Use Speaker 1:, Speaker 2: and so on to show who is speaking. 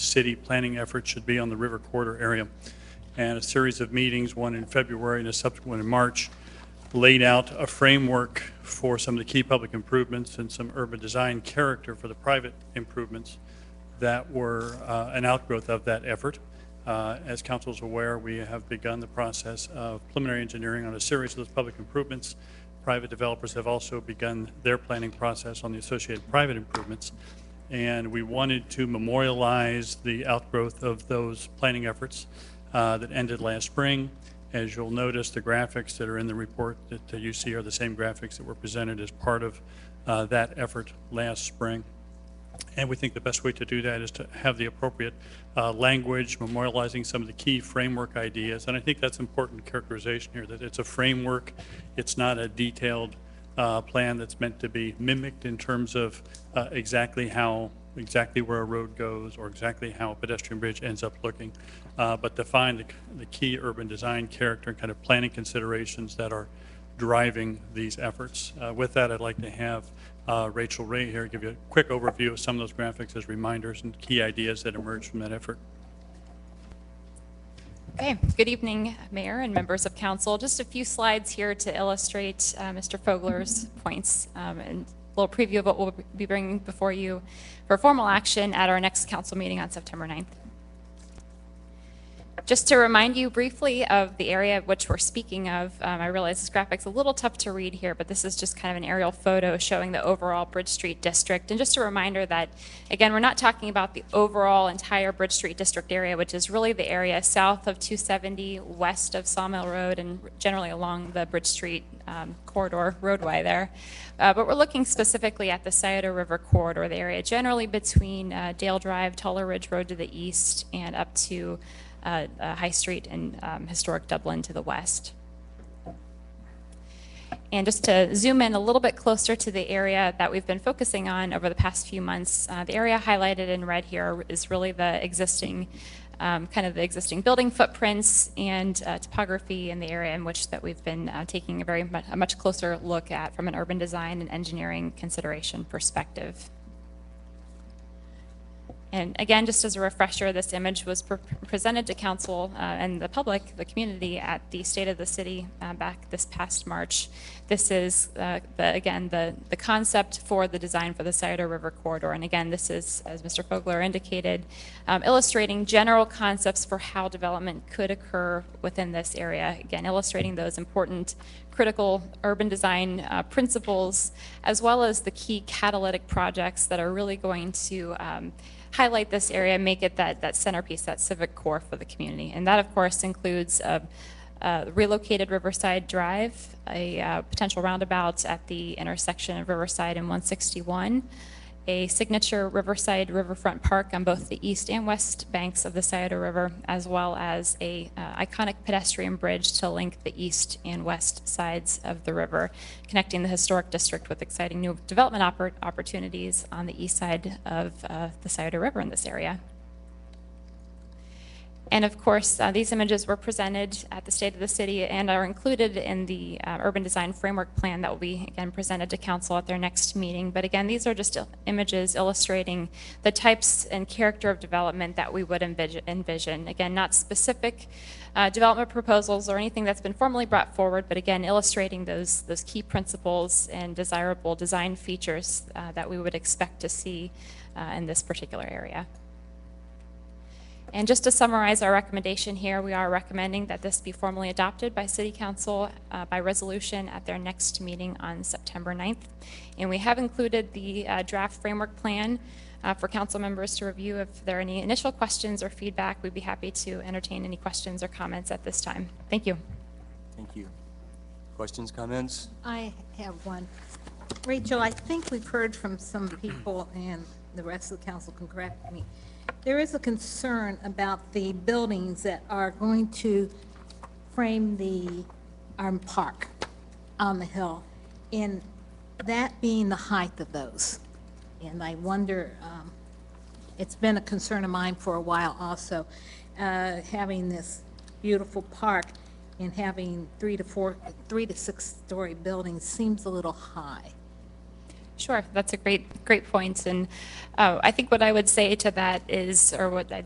Speaker 1: city planning effort should be on the river corridor area. And a series of meetings, one in February and a subsequent in March, laid out a framework for some of the key public improvements and some urban design character for the private improvements that were uh, an outgrowth of that effort. Uh, As council's aware, we have begun the process of preliminary engineering on a series of those public improvements. Private developers have also begun their planning process on the associated private improvements. And we wanted to memorialize the outgrowth of those planning efforts uh, that ended last spring. As you'll notice, the graphics that are in the report that uh, you see are the same graphics that were presented as part of uh, that effort last spring. And we think the best way to do that is to have the appropriate uh, language memorializing some of the key framework ideas. And I think that's important characterization here, that it's a framework. It's not a detailed uh, plan that's meant to be mimicked in terms of uh, exactly how, exactly where a road goes or exactly how a pedestrian bridge ends up looking, uh, but define the, the key urban design character and kind of planning considerations that are driving these efforts. Uh, With that, I'd like to have uh, Rachel Ray here give you a quick overview of some of those graphics as reminders and key ideas that emerged from that effort.
Speaker 2: Okay, good evening, Mayor and members of council. Just a few slides here to illustrate uh, Mr. Fogler's points um, and a little preview of what we'll be bringing before you for formal action at our next council meeting on September 9th. Just to remind you briefly of the area of which we're speaking of, um, I realize this graphic's a little tough to read here, but this is just kind of an aerial photo showing the overall Bridge Street district. And just a reminder that, again, we're not talking about the overall entire Bridge Street district area, which is really the area south of 270, west of Sawmill Road, and generally along the Bridge Street um, corridor roadway there. Uh, But we're looking specifically at the Scioto River corridor, the area generally between uh, Dale Drive, Tuller Ridge Road to the east, and up to uh, uh, High Street and um, historic Dublin to the west. And just to zoom in a little bit closer to the area that we've been focusing on over the past few months, uh, the area highlighted in red here is really the existing, um, kind of the existing building footprints and uh, topography in the area in which that we've been uh, taking a very mu- a much closer look at from an urban design and engineering consideration perspective. And again, just as a refresher, this image was pre- presented to council uh, and the public, the community, at the State of the City uh, back this past March. This is, uh, the- again, the, the concept for the design for the Scioto River corridor. And again, this is, as Mr. Fogler indicated, um, illustrating general concepts for how development could occur within this area. Again, illustrating those important critical urban design uh, principles, as well as the key catalytic projects that are really going to um, highlight this area, make it that, that centerpiece, that civic core for the community. And that, of course, includes uh, uh, relocated Riverside Drive, a uh, potential roundabout at the intersection of Riverside and 161, a signature Riverside Riverfront Park on both the east and west banks of the Scioto River, as well as a uh, iconic pedestrian bridge to link the east and west sides of the river, connecting the historic district with exciting new development oppor- opportunities on the east side of uh, the Scioto River in this area. And of course, uh, these images were presented at the State of the City and are included in the uh, Urban Design Framework Plan that will be, again, presented to council at their next meeting. But again, these are just il- images illustrating the types and character of development that we would envis- envision. Again, not specific uh, development proposals or anything that's been formally brought forward, but again, illustrating those, those key principles and desirable design features uh, that we would expect to see uh, in this particular area. And just to summarize our recommendation here, we are recommending that this be formally adopted by City Council uh, by resolution at their next meeting on September 9th. And we have included the uh, draft framework plan uh, for council members to review. If there are any initial questions or feedback, we'd be happy to entertain any questions or comments at this time. Thank you.
Speaker 3: Thank you. Questions, comments?
Speaker 4: I have one. Rachel, I think we've heard from some people, and the rest of the council can correct me. There is a concern about the buildings that are going to frame the, our park on the hill, and that being the height of those. And I wonder, um, it's been a concern of mine for a while also, uh, having this beautiful park and having three to four, three to six-story buildings seems a little high.
Speaker 2: Sure, that's a great, great point. And uh, I think what I would say to that is, or what I